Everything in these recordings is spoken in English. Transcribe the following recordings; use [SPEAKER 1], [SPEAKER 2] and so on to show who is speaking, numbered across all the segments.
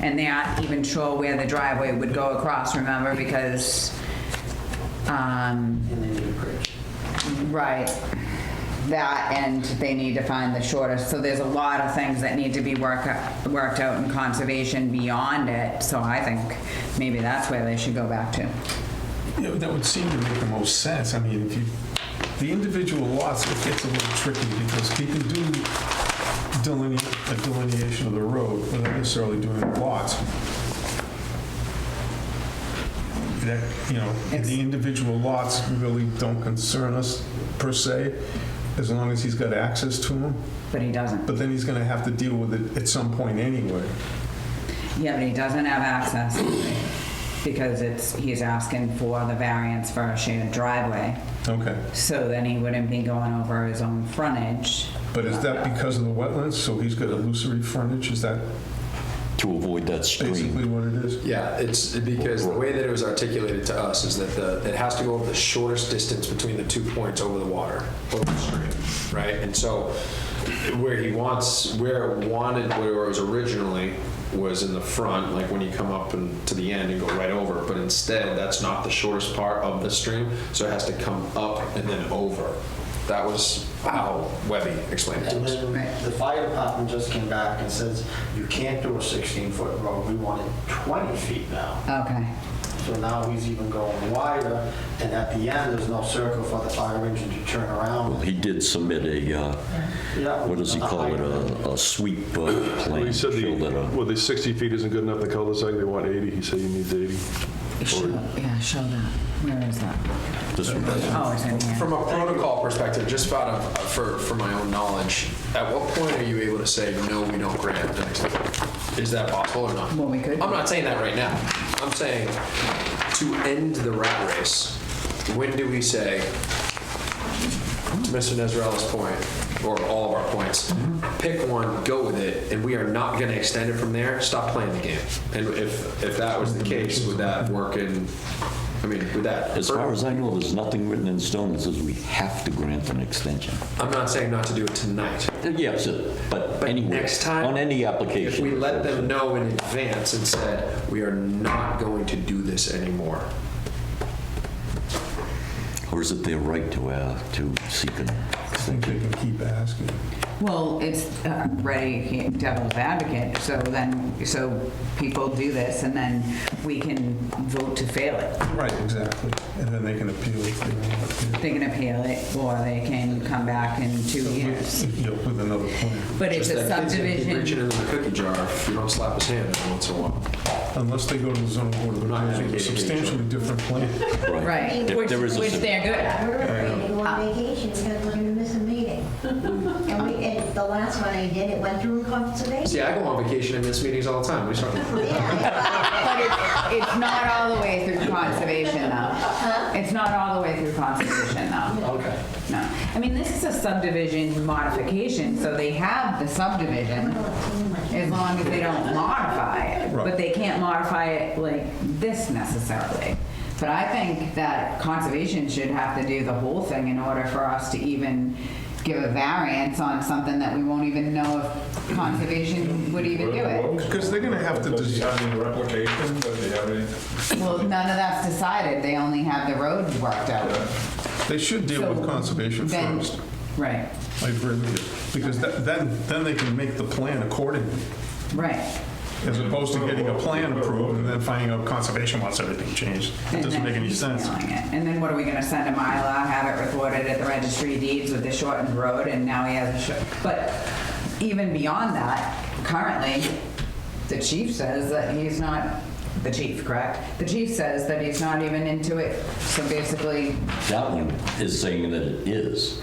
[SPEAKER 1] and they aren't even sure where the driveway would go across, remember, because, um,
[SPEAKER 2] and they need a bridge.
[SPEAKER 1] right, that, and they need to find the shortest, so there's a lot of things that need to be work, worked out in conservation beyond it, so I think maybe that's where they should go back to.
[SPEAKER 3] Yeah, but that would seem to make the most sense. I mean, if you, the individual lots, it gets a little tricky because people do delineate, a delineation of the road without necessarily doing it lots. That, you know, the individual lots really don't concern us per se, as long as he's got access to them.
[SPEAKER 1] But he doesn't.
[SPEAKER 3] But then he's gonna have to deal with it at some point anyway.
[SPEAKER 1] Yeah, but he doesn't have access because it's, he's asking for the variance for a shared driveway.
[SPEAKER 3] Okay.
[SPEAKER 1] So then he wouldn't be going over his own frontage.
[SPEAKER 3] But is that because of the wetlands? So he's got illusory frontage? Is that
[SPEAKER 4] to avoid that stream.
[SPEAKER 3] basically what it is?
[SPEAKER 5] Yeah, it's because the way that it was articulated to us is that the, it has to go over the shortest distance between the two points over the water, over the stream, right? And so where he wants, where it wanted, where it was originally was in the front, like when you come up and to the end and go right over, but instead, that's not the shortest part of the stream, so it has to come up and then over. That was how Webby explained it to
[SPEAKER 2] And
[SPEAKER 5] us.
[SPEAKER 2] then the fire department just came back and says, you can't do a 16-foot road, we want it 20 feet now.
[SPEAKER 1] Okay.
[SPEAKER 2] So now he's even going wider, and at the end, there's no circle for the fire engine to turn around.
[SPEAKER 4] He did submit a, uh,
[SPEAKER 2] Yeah,
[SPEAKER 4] what does he call it, a a sweep uh,
[SPEAKER 6] Well,
[SPEAKER 4] plan.
[SPEAKER 6] he said, the-
[SPEAKER 4] showed that, uh,
[SPEAKER 6] well, the 60 feet isn't good enough, the cul-de-sac, they want 80, he said he needs 80.
[SPEAKER 1] Show- Yeah, show that. Where is that?
[SPEAKER 4] This one.
[SPEAKER 1] Oh, it's in here.
[SPEAKER 5] From a protocol perspective, just out of, for, for my own knowledge, at what point are you able to say, no, we don't grant the next level? Is that possible or not?
[SPEAKER 1] Well, we could.
[SPEAKER 5] I'm not saying that right now. I'm saying to end the rat race, when do we say, to Mr. Nezrella's point, or all of our points,
[SPEAKER 1] Mm-hmm.
[SPEAKER 5] pick one, go with it, and we are not gonna extend it from there, stop playing the game? And if, if that was the case, would that work in, I mean, would that?
[SPEAKER 4] As far as I know, there's nothing written in stone that says we have to grant an extension.
[SPEAKER 5] I'm not saying not to do it tonight.
[SPEAKER 4] Yes, it- but
[SPEAKER 5] But
[SPEAKER 4] anyway,
[SPEAKER 5] next time,
[SPEAKER 4] on any application.
[SPEAKER 5] If we let them know in advance and said, we are not going to do this anymore.
[SPEAKER 4] Or is it their right to, uh, to seek an
[SPEAKER 3] I think they can keep asking.
[SPEAKER 1] Well, it's uh, ready devil's advocate, so then, so people do this and then we can vote to fail it.
[SPEAKER 3] Right, exactly. And then they can appeal if they want to
[SPEAKER 1] They can appeal it or they can come back in two years.
[SPEAKER 3] appeal. You know, With another plan.
[SPEAKER 1] But it's
[SPEAKER 5] Just
[SPEAKER 1] a
[SPEAKER 5] that kid's gonna keep Reaching
[SPEAKER 1] subdivision.
[SPEAKER 5] into the cookie jar if you don't slap his hand every once in a while.
[SPEAKER 3] Unless they go to the zoning board of
[SPEAKER 5] Not
[SPEAKER 3] appeals with a
[SPEAKER 5] advocating each other.
[SPEAKER 3] substantially different plan.
[SPEAKER 1] Right,
[SPEAKER 4] There-
[SPEAKER 1] which,
[SPEAKER 4] there is a
[SPEAKER 1] which
[SPEAKER 4] sub-
[SPEAKER 1] they're good at.
[SPEAKER 7] We're afraid to go on vacation because we're gonna miss a meeting. And we, and the last one I did, it went through conservation.
[SPEAKER 5] See, I go on vacation and miss meetings all the time. What are you talking about?
[SPEAKER 7] Yeah,
[SPEAKER 1] But it's, it's not all the way through conservation though. It's not all the way through conservation though.
[SPEAKER 5] Okay.
[SPEAKER 1] No, I mean, this is a subdivision modification, so they have the subdivision, as long as they don't modify it. But
[SPEAKER 3] Right.
[SPEAKER 1] they can't modify it like this necessarily. But I think that conservation should have to do the whole thing in order for us to even give a variance on something that we won't even know if conservation would even do it.
[SPEAKER 3] Because they're gonna have to
[SPEAKER 8] Does he
[SPEAKER 3] design,
[SPEAKER 8] have any replication? Does he have any?
[SPEAKER 1] Well, none of that's decided, they only have the road worked out.
[SPEAKER 3] they should deal
[SPEAKER 1] So
[SPEAKER 3] with conservation
[SPEAKER 1] then-
[SPEAKER 3] first.
[SPEAKER 1] Right,
[SPEAKER 3] I agree with you. Because that- then, then they can make the plan accordingly,
[SPEAKER 1] right.
[SPEAKER 3] as opposed to getting a plan approved and then finding out conservation wants everything changed. It
[SPEAKER 1] And
[SPEAKER 3] doesn't
[SPEAKER 1] then
[SPEAKER 3] make any
[SPEAKER 1] he's
[SPEAKER 3] sense.
[SPEAKER 1] mailing it. And then what are we gonna send a Mylar, have it recorded at the registry of deeds with the shortened road, and now he has a short, but even beyond that, currently, the chief says that he's not, the chief, correct? The chief says that he's not even into it, so basically,
[SPEAKER 4] That one is saying that it is.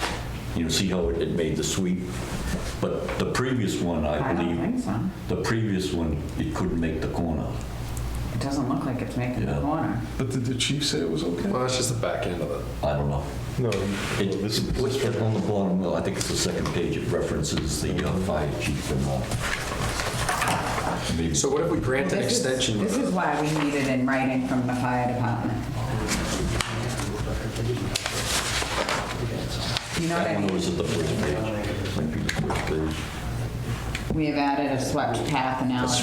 [SPEAKER 4] You know, see how it it made the sweep? But the previous one, I
[SPEAKER 1] I don't think
[SPEAKER 4] believe,
[SPEAKER 1] so.
[SPEAKER 4] the previous one, it couldn't make the corner.
[SPEAKER 1] It doesn't look like it's making the
[SPEAKER 4] Yeah.
[SPEAKER 1] corner.
[SPEAKER 3] But did the chief say it was okay?
[SPEAKER 5] Well, that's just the back end of it.
[SPEAKER 4] I don't know.
[SPEAKER 6] No,
[SPEAKER 4] It-
[SPEAKER 6] this is-
[SPEAKER 4] What's that on the bottom, Well, I think it's the second page, it references the uh, fire chief and all. Maybe
[SPEAKER 5] So what if we grant an
[SPEAKER 1] This is-
[SPEAKER 5] extension?
[SPEAKER 1] This is why we need it in writing from the fire department. You know what I
[SPEAKER 4] that
[SPEAKER 1] mean?
[SPEAKER 4] one was at the first page. Might be the first page.
[SPEAKER 1] We have added a swept path analysis.